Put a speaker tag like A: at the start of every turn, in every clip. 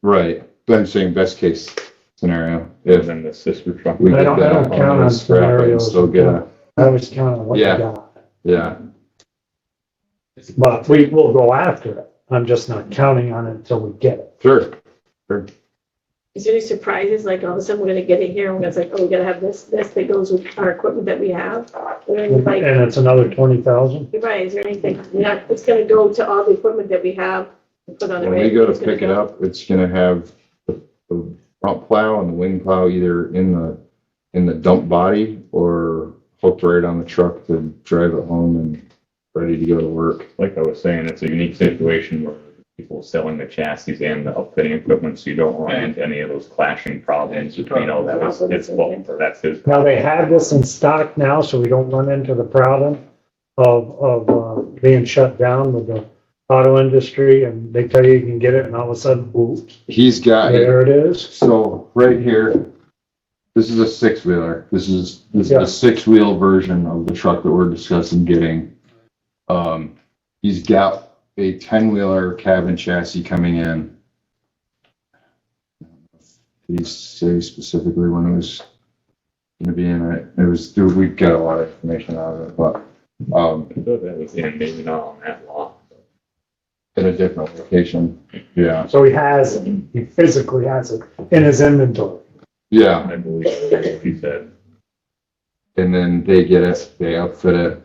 A: Right, but I'm saying best case scenario,
B: and
A: if
B: then the sister truck.
A: we
C: But I
A: get
C: don't-
A: that
C: I don't count
A: on
C: on
A: this scrap and
C: scenarios.
A: still get a,
C: I always count on what you
A: Yeah.
C: got,
A: yeah,
C: but we will go after it. I'm just not counting on it until we get it.
A: sure.
D: Is there any surprises, like all of a sudden we're gonna get it here and it's like, oh, we gotta have this, this that goes with our equipment that we have? Or any,
C: And
D: like,
C: it's another twenty thousand.
D: you're right, is there anything, not, it's gonna go to all the equipment that we have and put on the
A: When we
D: radio,
A: go to
D: it's gonna
A: pick it up, it's gonna have the the front plow and the wing plow either in the, in the dump body or hooked right on the truck to drive it home and ready to go to work.
B: Like I was saying, it's a unique situation where people are selling the chassis and the upfitting equipment, so you don't run into any of those clashing problems between, oh, that was his fault, or that's his.
C: Now, they have this in stock now, so we don't run into the problem of, of, uh, being shut down with the auto industry and they tell you you can get it and all of a sudden, oops,
A: He's got,
C: there it is.
A: so right here, this is a six wheeler. This is, this is
C: Yeah.
A: a six wheel version of the truck that we're discussing getting. Um, he's got a ten wheeler cabin chassis coming in. Did he say specifically when it was gonna be in it? It was, dude, we got a lot of information out of it, but, um,
B: I thought that was in, maybe not on that lot.
A: in a different location. Yeah,
C: So he has, it. he physically has it in his inventory.
A: yeah.
B: I believe what he said.
A: And then they get it, they outfit it,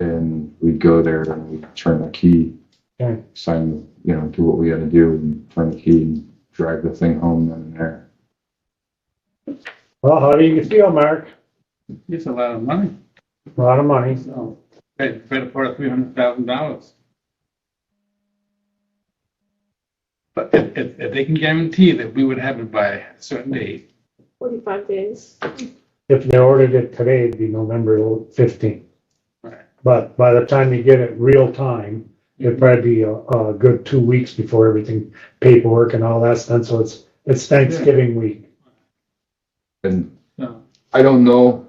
A: and we go there and we turn the key.
C: Okay.
A: Sign, you know, do what we gotta do and turn the key and drag the thing home then and there.
C: Well, how do you feel, Mark?
E: It's a lot of money,
C: A lot of money.
E: so they paid a part of three hundred thousand dollars. But if, if, if they can guarantee that we would have it by a certain date,
D: Forty-five days. Uh,
C: If they ordered it today, it'd be November fifteenth.
E: Right.
C: But by the time you get it real time, it'd probably be a, a good two weeks before everything, paperwork and all that's done, so it's, it's Thanksgiving week.
A: And
E: so,
A: I don't know,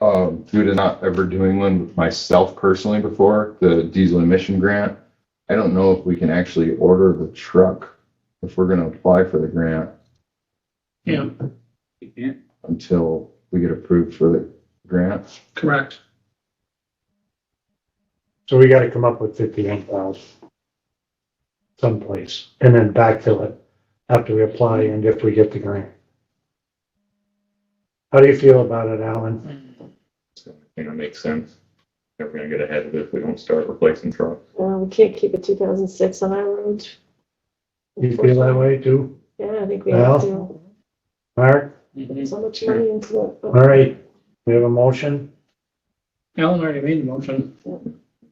A: um, due to not ever doing one with myself personally before, the diesel emission grant. I don't know if we can actually order the truck if we're gonna apply for the grant
E: yeah. You can't,
A: until we get approved for the grant.
E: correct.
C: So we gotta come up with fifty-one thousand someplace, and then backfill it after we apply and if we get the grant. How do you feel about it, Alan?
B: So, You know, makes sense. If We're gonna get ahead of it if we don't start replacing trucks.
D: Uh, we can't keep a two thousand six on our road.
C: You feel that way too,
D: Yeah, I think we have to,
C: Mark?
D: There's so much money into it.
C: All right, we have a motion?
E: Alan already made the motion.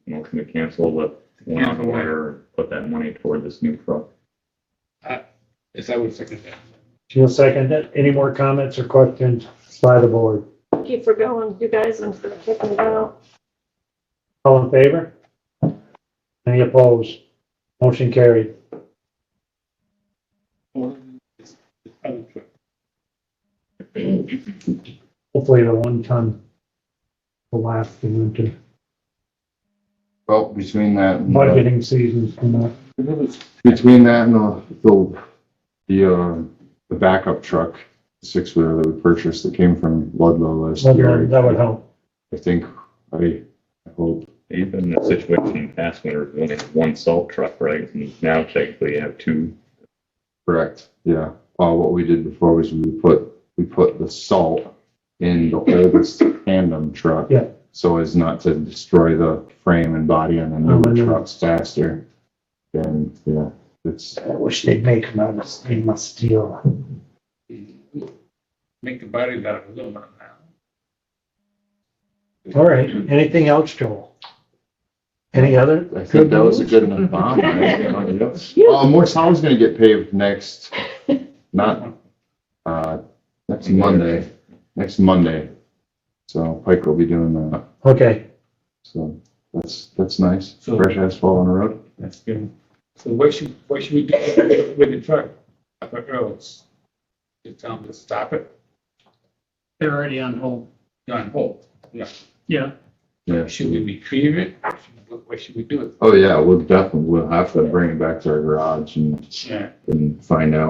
B: Motion to cancel the one on the wire, put that money toward this new truck.
E: Yes, I would second that.
C: She'll second it. Any more comments or questions by the board?
D: Keep for going, you guys, and for checking it out.
C: All in favor? Any opposed? Motion carried.
E: Or it's- it's other truck.
C: Hopefully the one ton will last the winter.
A: Well, between that. and the-
C: Budgeting season's coming up.
A: Between that and the, the, the, uh, the backup truck, six wheeler that we purchased that came from Ludlow last
C: That would-
A: year.
C: that would help.
A: I think, I, I hope,
B: Even the situation in past winter, we only had one salt truck, right? And now technically you have two.
A: correct, yeah. Uh, what we did before was we put, we put the salt in the oldest tandem truck.
C: Yeah.
A: So as not to destroy the frame and body on the newer
C: Mhm.
A: trucks faster. And, yeah, it's,
C: I wish they'd make them out of stainless steel.
E: Make the body out of aluminum now.
C: All right, anything else, Joel? Any other?
A: I think that was a good enough bomb, right? Uh, more town's gonna get paved next, not, uh, next Monday, next Monday. So Pike will be doing that,
C: Okay,
A: so that's, that's nice,
E: So-
A: fresh asphalt on the road.
E: That's good. So what should, what should we do with the truck? Up at roads? Just tell them to stop it?
F: They're already on hold.
E: You're on hold.
F: Yeah.
A: Yeah.
E: Should we retrieve it? What, what should we do with
A: Oh, yeah, we'll definitely, we'll have to bring it back to our garage and,
E: it? Yeah.
A: and find out